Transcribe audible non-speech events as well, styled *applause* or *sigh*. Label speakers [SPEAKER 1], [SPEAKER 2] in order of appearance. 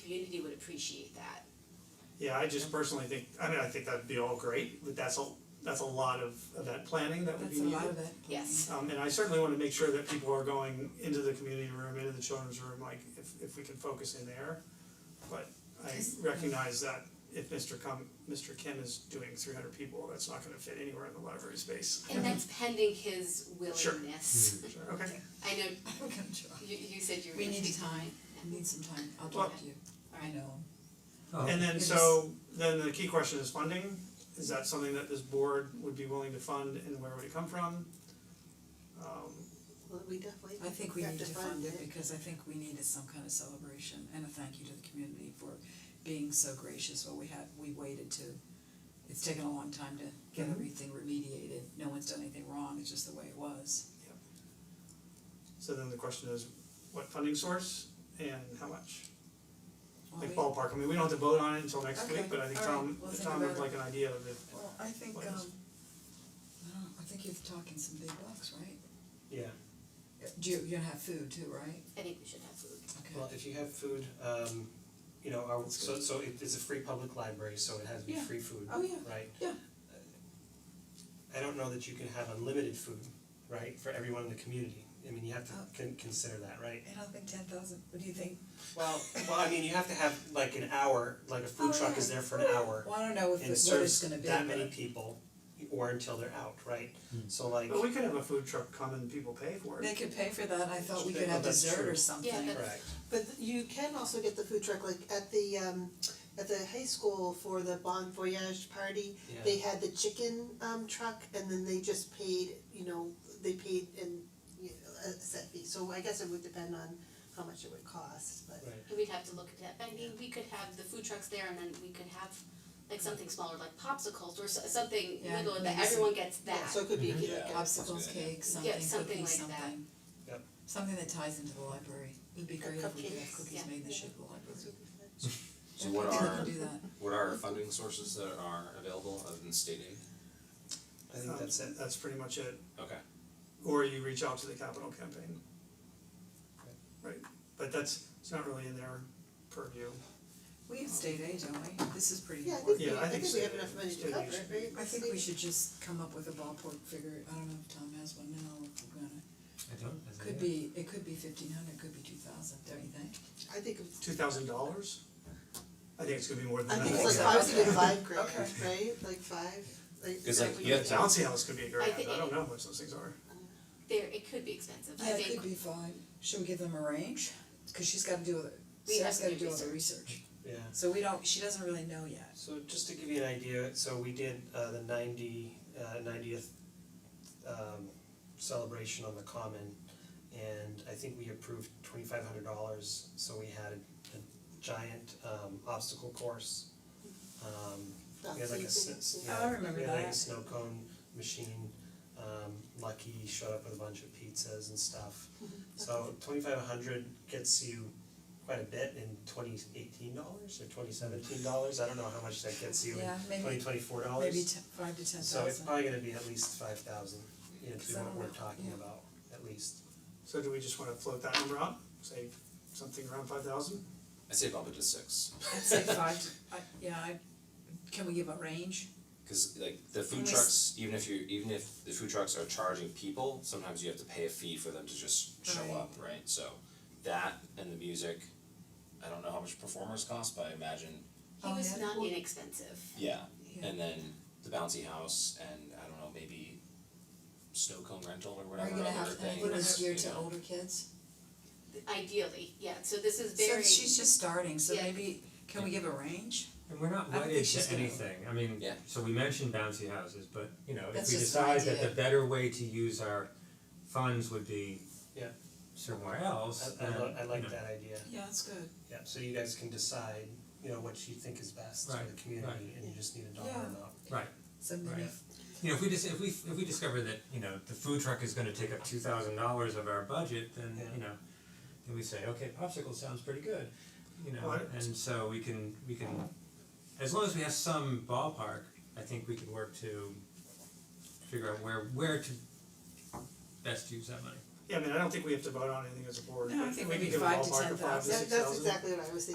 [SPEAKER 1] community would appreciate that.
[SPEAKER 2] Yeah, I just personally think, I mean, I think that'd be all great, but that's a, that's a lot of event planning that would be
[SPEAKER 3] That's a
[SPEAKER 2] needed.
[SPEAKER 3] lot of it.
[SPEAKER 1] Yes,
[SPEAKER 2] Um and I certainly wanna make sure that people are going into the community room, into the children's room, like if if we can focus in there. But I recognize that if Mr. Kim, Mr. Kim is doing three hundred people, that's not gonna fit anywhere in the library space.
[SPEAKER 3] Mm-hmm.
[SPEAKER 1] and that's pending his
[SPEAKER 2] Sure.
[SPEAKER 1] willingness. Mm-hmm.
[SPEAKER 2] Sure, okay,
[SPEAKER 1] I know
[SPEAKER 3] *laughs* I'm gonna try.
[SPEAKER 1] you you said you were
[SPEAKER 3] We need
[SPEAKER 1] interested.
[SPEAKER 3] time, I need some time, I'll talk to you, I know. Oh,
[SPEAKER 4] Oh.
[SPEAKER 2] and then
[SPEAKER 3] Yes.
[SPEAKER 2] so then the key question is funding, is that something that this board would be willing to fund and where would it come from? Um
[SPEAKER 5] Well, we definitely
[SPEAKER 3] I think we
[SPEAKER 5] have
[SPEAKER 3] need to fund it
[SPEAKER 5] it.
[SPEAKER 3] because I think we needed some kind of celebration and a thank you to the community for being so gracious while we had, we waited to. It's taken a long time to get
[SPEAKER 2] Mhm.
[SPEAKER 3] everything remediated, no one's done anything wrong, it's just the way it was.
[SPEAKER 2] so then the question is, what funding source and how much?
[SPEAKER 3] Well,
[SPEAKER 2] Like
[SPEAKER 3] we-
[SPEAKER 2] ballpark, I mean, we don't have to vote on it until next
[SPEAKER 3] Okay,
[SPEAKER 2] week, but I think
[SPEAKER 3] all right,
[SPEAKER 2] Tom,
[SPEAKER 3] we'll think
[SPEAKER 2] Tom would
[SPEAKER 3] about it.
[SPEAKER 2] like an idea of it.
[SPEAKER 3] Well, I think
[SPEAKER 2] What
[SPEAKER 3] um,
[SPEAKER 2] else?
[SPEAKER 3] I don't know, I think you're talking some big bucks, right?
[SPEAKER 4] Yeah,
[SPEAKER 3] Do you, you're gonna have food too, right?
[SPEAKER 1] I think we should have food.
[SPEAKER 3] Okay.
[SPEAKER 4] well, if you have food, um, you know, our,
[SPEAKER 3] That's
[SPEAKER 4] so
[SPEAKER 3] good.
[SPEAKER 4] so it is a free public library, so it has to be
[SPEAKER 3] Yeah.
[SPEAKER 4] free food, right? Uh,
[SPEAKER 3] Oh, yeah. Yeah.
[SPEAKER 4] I don't know that you can have unlimited food, right, for everyone in the community, I mean, you have to
[SPEAKER 3] Oh.
[SPEAKER 4] con- consider that, right?
[SPEAKER 3] I don't think ten thousand, what do you think?
[SPEAKER 4] Well, well, I mean, you have to have like an hour, like a food
[SPEAKER 3] Oh,
[SPEAKER 4] truck
[SPEAKER 3] yeah.
[SPEAKER 4] is there for an hour
[SPEAKER 3] Well, I don't know if it,
[SPEAKER 4] and
[SPEAKER 3] what it's
[SPEAKER 4] serves
[SPEAKER 3] gonna be,
[SPEAKER 4] that many
[SPEAKER 3] but-
[SPEAKER 4] people or until they're out, right? So like,
[SPEAKER 2] But we could have a food truck come and people pay for
[SPEAKER 3] They
[SPEAKER 2] it.
[SPEAKER 3] could pay for that, I thought we
[SPEAKER 4] They-
[SPEAKER 3] could
[SPEAKER 4] well,
[SPEAKER 3] have
[SPEAKER 4] that's
[SPEAKER 3] dessert
[SPEAKER 4] true.
[SPEAKER 3] or something.
[SPEAKER 1] Yeah, that's-
[SPEAKER 4] correct,
[SPEAKER 5] But you can also get the food truck, like at the um at the high school for the Bon Voyage party,
[SPEAKER 4] Yeah.
[SPEAKER 5] they had the chicken um truck and then they just paid, you know, they paid in you know, a set fee, so I guess it would depend on how much it would cost, but
[SPEAKER 4] right,
[SPEAKER 1] And we'd have to look at that, I mean, we could have the food trucks there and then we could have like something smaller, like popsicles or so- something
[SPEAKER 3] Yeah,
[SPEAKER 1] little that
[SPEAKER 3] maybe some-
[SPEAKER 1] everyone gets that.
[SPEAKER 5] yeah, so it could be
[SPEAKER 3] Mm-hmm. *laughs*
[SPEAKER 5] like a-
[SPEAKER 3] Popsicles, cakes, something,
[SPEAKER 1] Yeah, something
[SPEAKER 3] cookies,
[SPEAKER 1] like that.
[SPEAKER 3] something.
[SPEAKER 4] Yep.
[SPEAKER 3] Something that ties into the library, it'd be great if we could have
[SPEAKER 5] cupcakes.
[SPEAKER 3] cookies
[SPEAKER 1] Yeah.
[SPEAKER 3] made in the
[SPEAKER 5] Yeah.
[SPEAKER 3] shape of the library.
[SPEAKER 6] So what
[SPEAKER 3] I think we
[SPEAKER 6] are,
[SPEAKER 3] can do that,
[SPEAKER 6] what are funding sources that are available other than state aid?
[SPEAKER 4] I think
[SPEAKER 2] Um,
[SPEAKER 4] that's it,
[SPEAKER 2] That's pretty much it,
[SPEAKER 6] Okay,
[SPEAKER 2] or you reach out to the capital campaign. Right, but that's, it's not really in their purview.
[SPEAKER 3] we have state aid, don't we? This is pretty
[SPEAKER 5] Yeah, I
[SPEAKER 3] important.
[SPEAKER 5] think we,
[SPEAKER 2] Yeah, I
[SPEAKER 5] I
[SPEAKER 2] think
[SPEAKER 5] think
[SPEAKER 2] so.
[SPEAKER 5] we have enough money to
[SPEAKER 2] Yeah,
[SPEAKER 5] cover
[SPEAKER 2] we
[SPEAKER 5] it,
[SPEAKER 2] should-
[SPEAKER 5] right?
[SPEAKER 3] I think we should just come up with a ballpark figure, I don't know if Tom has one now, if we're gonna,
[SPEAKER 7] I don't, as
[SPEAKER 3] could be, it could be fifteen hundred, could be two thousand, don't you think?
[SPEAKER 5] I think it's
[SPEAKER 2] Two thousand dollars? I think it's gonna be more
[SPEAKER 5] I
[SPEAKER 2] than
[SPEAKER 5] think it's
[SPEAKER 2] that.
[SPEAKER 5] like I was thinking five grand, right, like five, like.
[SPEAKER 6] 'Cause, like,
[SPEAKER 5] that we
[SPEAKER 6] you have
[SPEAKER 5] would-
[SPEAKER 6] to
[SPEAKER 2] I don't see how this could be a grand, I
[SPEAKER 1] think-
[SPEAKER 2] don't know how much those things are.
[SPEAKER 1] There, it could be expensive, I
[SPEAKER 3] Yeah, it could
[SPEAKER 1] think,
[SPEAKER 3] be five, should we give them a range? Cause she's gotta do, other-
[SPEAKER 1] We have
[SPEAKER 3] Sarah's
[SPEAKER 1] to
[SPEAKER 3] gotta
[SPEAKER 1] do
[SPEAKER 3] do all the research,
[SPEAKER 4] yeah.
[SPEAKER 3] so we don't, she doesn't really know yet.
[SPEAKER 4] So just to give you an idea, so we did uh the ninety uh ninetieth um celebration on the common and I think we approved twenty five hundred dollars, so we had a giant um obstacle course. Um we had like a
[SPEAKER 5] That's-
[SPEAKER 4] s-
[SPEAKER 5] yeah.
[SPEAKER 4] yeah,
[SPEAKER 3] Oh, I remember
[SPEAKER 4] we had like a
[SPEAKER 3] that.
[SPEAKER 4] snow cone machine, um Lucky showed up with a bunch of pizzas and stuff. So twenty five hundred gets you quite a bit in twenty eighteen dollars or twenty seventeen dollars, I don't know how much that gets you
[SPEAKER 3] Yeah,
[SPEAKER 4] in
[SPEAKER 3] maybe-
[SPEAKER 4] twenty twenty four dollars.
[SPEAKER 3] Maybe ten, five to ten
[SPEAKER 4] So it's
[SPEAKER 3] thousand.
[SPEAKER 4] probably gonna be at least five thousand, you know, to
[SPEAKER 3] Because
[SPEAKER 4] be
[SPEAKER 3] I
[SPEAKER 4] what
[SPEAKER 3] don't
[SPEAKER 4] we're
[SPEAKER 3] know,
[SPEAKER 4] talking
[SPEAKER 3] yeah.
[SPEAKER 4] about, at least.
[SPEAKER 2] So do we just wanna float that number out, say something around five thousand?
[SPEAKER 6] I say bump it to six,
[SPEAKER 3] I'd say five, to- I, yeah, I, can we give a range?
[SPEAKER 6] cause like the food
[SPEAKER 3] Unless-
[SPEAKER 6] trucks, even if you, even if the food trucks are charging people, sometimes you have to pay a fee for them to just show
[SPEAKER 3] Right.
[SPEAKER 6] up, right? So that and the music, I don't know how much performers cost, but I imagine,
[SPEAKER 1] he
[SPEAKER 3] Oh,
[SPEAKER 1] was
[SPEAKER 3] yeah.
[SPEAKER 1] not inexpensive.
[SPEAKER 6] yeah,
[SPEAKER 3] Yeah.
[SPEAKER 6] and then the bouncy house and I don't know, maybe snow cone rental or
[SPEAKER 3] Are
[SPEAKER 6] whatever
[SPEAKER 3] you gonna
[SPEAKER 6] other
[SPEAKER 3] have
[SPEAKER 6] things,
[SPEAKER 3] anyone geared
[SPEAKER 6] you
[SPEAKER 3] to
[SPEAKER 6] know.
[SPEAKER 3] older kids?
[SPEAKER 1] Ideally, yeah, so this is very,
[SPEAKER 3] So she's just starting, so
[SPEAKER 1] Yeah.
[SPEAKER 3] maybe, can we give a range?
[SPEAKER 7] And we're not
[SPEAKER 3] I don't
[SPEAKER 7] wedded
[SPEAKER 3] think she's
[SPEAKER 7] to
[SPEAKER 3] gonna-
[SPEAKER 7] anything, I mean,
[SPEAKER 6] Yeah.
[SPEAKER 7] so we mentioned bouncy houses, but you know, if
[SPEAKER 3] That's
[SPEAKER 7] we
[SPEAKER 3] just an
[SPEAKER 7] decide that the
[SPEAKER 3] idea.
[SPEAKER 7] better way to use our funds would be
[SPEAKER 4] Yeah.
[SPEAKER 7] somewhere else,
[SPEAKER 4] I I
[SPEAKER 7] then,
[SPEAKER 4] lo- I
[SPEAKER 7] you
[SPEAKER 4] like
[SPEAKER 7] know,
[SPEAKER 4] that idea,
[SPEAKER 3] Yeah, that's good.
[SPEAKER 4] yeah, so you guys can decide, you know, what you think is best for
[SPEAKER 7] Right,
[SPEAKER 4] the community and you just need a dollar
[SPEAKER 3] Yeah.
[SPEAKER 4] amount.
[SPEAKER 3] So maybe,
[SPEAKER 7] Right. You know, if we just, if we, if we discover that, you know, the food truck is gonna take up two thousand dollars of our budget, then,
[SPEAKER 4] Yeah.
[SPEAKER 7] you know, then we say, okay, popsicle sounds pretty good, you know,
[SPEAKER 2] Right.
[SPEAKER 7] and so we can, we can, as long as we have some ballpark, I think we can work to figure out where, where to best use that money.
[SPEAKER 2] Yeah, I mean, I don't think we have to vote on anything as a board,
[SPEAKER 3] No, I
[SPEAKER 2] but
[SPEAKER 3] think
[SPEAKER 2] we
[SPEAKER 3] maybe
[SPEAKER 2] can give a
[SPEAKER 3] five to
[SPEAKER 2] ballpark of five to
[SPEAKER 3] 10,000.
[SPEAKER 2] six
[SPEAKER 5] That
[SPEAKER 2] thousand.
[SPEAKER 5] that's exactly what I was thinking.